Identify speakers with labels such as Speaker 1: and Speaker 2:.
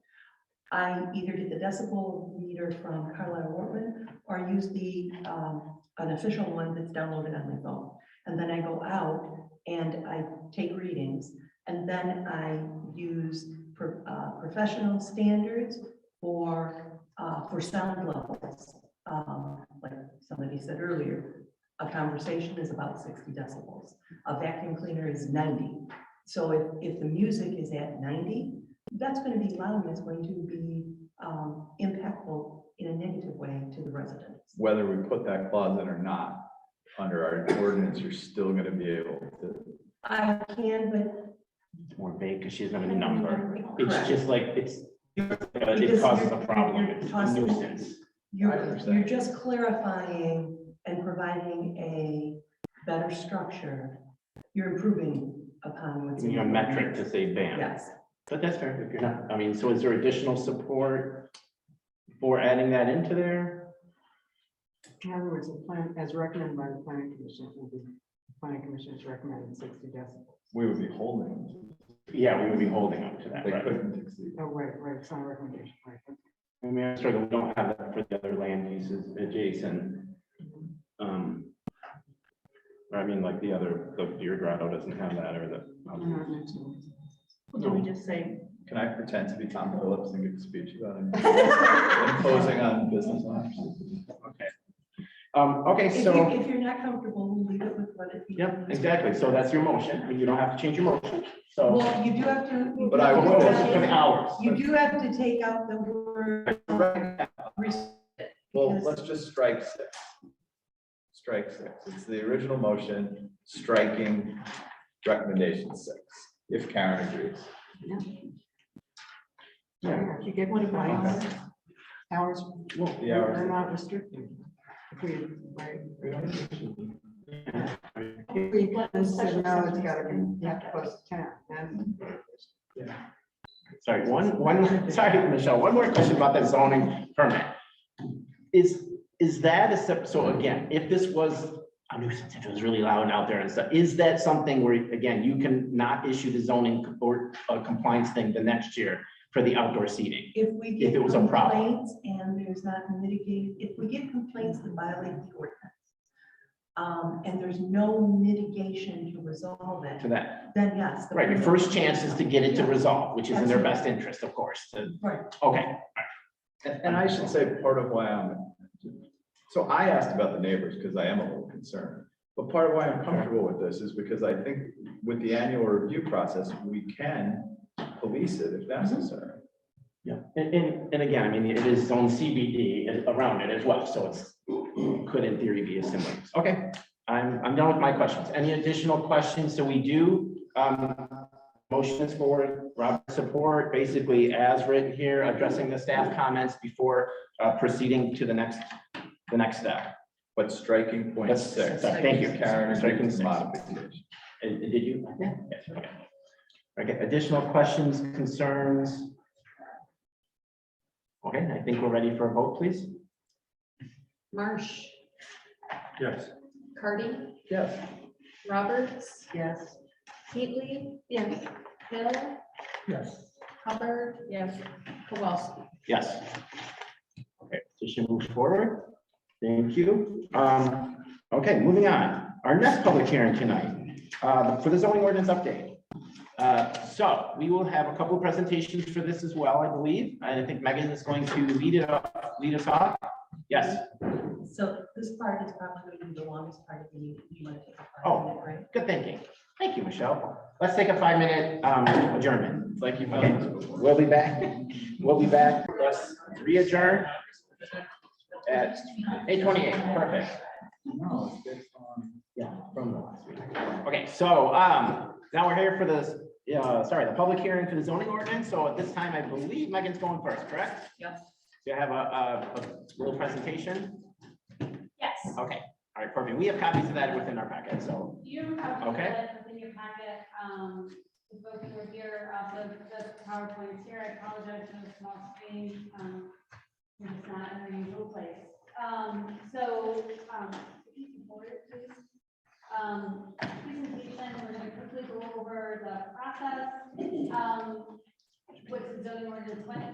Speaker 1: I either did the decibel meter from Carlisle Workman or used the, um, an official one that's downloaded on my phone. And then I go out and I take readings. And then I use pro- uh, professional standards for, uh, for sound levels. Um, Like somebody said earlier, a conversation is about 60 decibels. A vacuum cleaner is 90. So if, if the music is at 90, that's going to be loud and it's going to be um, impactful in a negative way to the residents.
Speaker 2: whether we put that clause in or not, under our ordinance, you're still gonna be able to.
Speaker 1: I can, but.
Speaker 3: It's more vague because she doesn't have a number. It's
Speaker 1: Correct.
Speaker 3: just like, it's,
Speaker 1: Because
Speaker 3: it causes a
Speaker 1: you're-
Speaker 3: problem,
Speaker 1: you're
Speaker 3: it's a
Speaker 1: constantly-
Speaker 3: nuisance.
Speaker 2: I
Speaker 1: You're,
Speaker 2: understand.
Speaker 1: you're just clarifying and providing a better structure. You're improving upon what's.
Speaker 3: You need a
Speaker 1: in the
Speaker 3: metric to say ban.
Speaker 1: Yes,
Speaker 3: But that's fair, if you're not, I mean, so is there additional support for adding that into there?
Speaker 4: In other words, the plan, as recommended by the planning commission, it will be, the planning commission is recommending sixty decibels.
Speaker 2: We would be holding.
Speaker 3: Yeah, we would be holding up to that,
Speaker 2: They
Speaker 3: right?
Speaker 2: couldn't exceed.
Speaker 4: Oh, right, right, it's not a recommendation, right.
Speaker 3: I mean, I'm struggling, we don't have that for the other land uses adjacent. Um, or I mean, like the other, the Deer Grotto doesn't have that, or the. um,
Speaker 4: I'm
Speaker 1: Mm-hmm.
Speaker 4: not mentioning it.
Speaker 5: Well, do we just say?
Speaker 2: Can I pretend to be Tom Phillips and give a speech about imposing on business owners?
Speaker 3: Okay. Um, okay,
Speaker 1: if
Speaker 3: so.
Speaker 1: you, if you're not comfortable, we'll leave it with what it.
Speaker 3: Yep, exactly. So that's your motion, and you don't have to change your motion. So.
Speaker 1: Well, you do have to. you
Speaker 2: But
Speaker 1: do
Speaker 2: I
Speaker 1: have to
Speaker 2: will-
Speaker 1: take-
Speaker 3: Of hours.
Speaker 1: You do have to take out the word. res-
Speaker 2: Well, let's just strike six. Strike six. It's the original motion, striking recommendation six, if Karen agrees.
Speaker 3: Yeah.
Speaker 4: Yeah, if you get
Speaker 5: What
Speaker 4: one
Speaker 5: about
Speaker 4: hours,
Speaker 3: Okay.
Speaker 4: hours,
Speaker 3: Well,
Speaker 2: The
Speaker 4: they're
Speaker 2: hours.
Speaker 4: not restricted. If we, right,
Speaker 3: yeah.
Speaker 4: if we, this is now it's gotta be, you have to post ten, and
Speaker 3: Sorry, one, one, sorry, Michelle, one more question about that zoning permit. Is, is that a, sep- so again, if this was, a nuisance, if it was really loud out there and stuff, is that something where, again, you can not issue the zoning or a compliance thing the next year for the outdoor seating?
Speaker 1: If we get.
Speaker 3: If it was a problem.
Speaker 1: complaints And there's not mitigated, if we get complaints that violate the ordinance. Um, and there's no mitigation to resolve
Speaker 3: To
Speaker 1: it,
Speaker 3: that,
Speaker 1: then yes. the-
Speaker 3: right, your first chance is to get it to resolve, which is in their best interest, of course, to-
Speaker 1: Right,
Speaker 3: okay.
Speaker 2: And, and I should say, part of why I'm, so I asked about the neighbors because I am a little concerned. But part of why I'm comfortable with this is because I think with the annual review process, we can police it if necessary.
Speaker 3: Yeah, and, and, and again, I mean, it is zone CBD and around it as well, so it's, could in theory be a similar. Okay, I'm, I'm done with my questions. Any additional questions? So we do, um, motions for Robert's support, basically as written here, addressing the staff comments before, uh, proceeding to the next, the next step.
Speaker 2: But striking point
Speaker 3: That's-
Speaker 2: six.
Speaker 3: thank you.
Speaker 2: Karen,
Speaker 3: Striking six.
Speaker 2: modification.
Speaker 3: Uh, Did you? Yeah. Okay, Okay, additional questions, concerns? Okay, I think we're ready for a vote, please.
Speaker 5: Marsh,
Speaker 3: Yes.
Speaker 5: Cardy,
Speaker 2: Yes.
Speaker 5: Roberts,
Speaker 4: yes.
Speaker 5: Heatley? Yes. Hill?
Speaker 3: Yes.
Speaker 5: Hubbard? Yes. Kowalski?
Speaker 3: Yes. Okay, petition moves forward. Thank you. Um, okay, moving on. Our next public hearing tonight, uh, for the zoning ordinance update. Uh, so we will have a couple of presentations for this as well, I believe. I think Megan is going to lead it up, lead us off. Yes,
Speaker 1: so this part is probably going to be the longest part of the meeting. You want to take a five
Speaker 3: Oh.
Speaker 1: minute break?
Speaker 3: good thinking. Thank you, Michelle. Let's take a five-minute, um, adjournment.
Speaker 2: Like you've
Speaker 3: Okay,
Speaker 2: done before.
Speaker 3: we'll be back. We'll be back. Let's re-adjourn at eight twenty-eight. Perfect.
Speaker 2: No, it's based on.
Speaker 3: Yeah, from the last week. Okay, so, um, now we're here for this, uh, sorry, the public hearing for the zoning ordinance. So at this time, I believe Megan's going first, correct?
Speaker 1: Yep.
Speaker 3: Do you have a, a, a little presentation?
Speaker 6: Yes,
Speaker 3: Okay, all right, perfect. We have copies of that within our packet, so,
Speaker 6: you have.
Speaker 3: Okay.
Speaker 6: that In your packet, um, the book you were here, uh, the, the PowerPoint's here, I apologize for the small screen, um, it's not in our usual place. Um, so, um, if you can forward it, please. Um, presentation, we're gonna quickly go over the process, um, what's the zoning ordinance, when it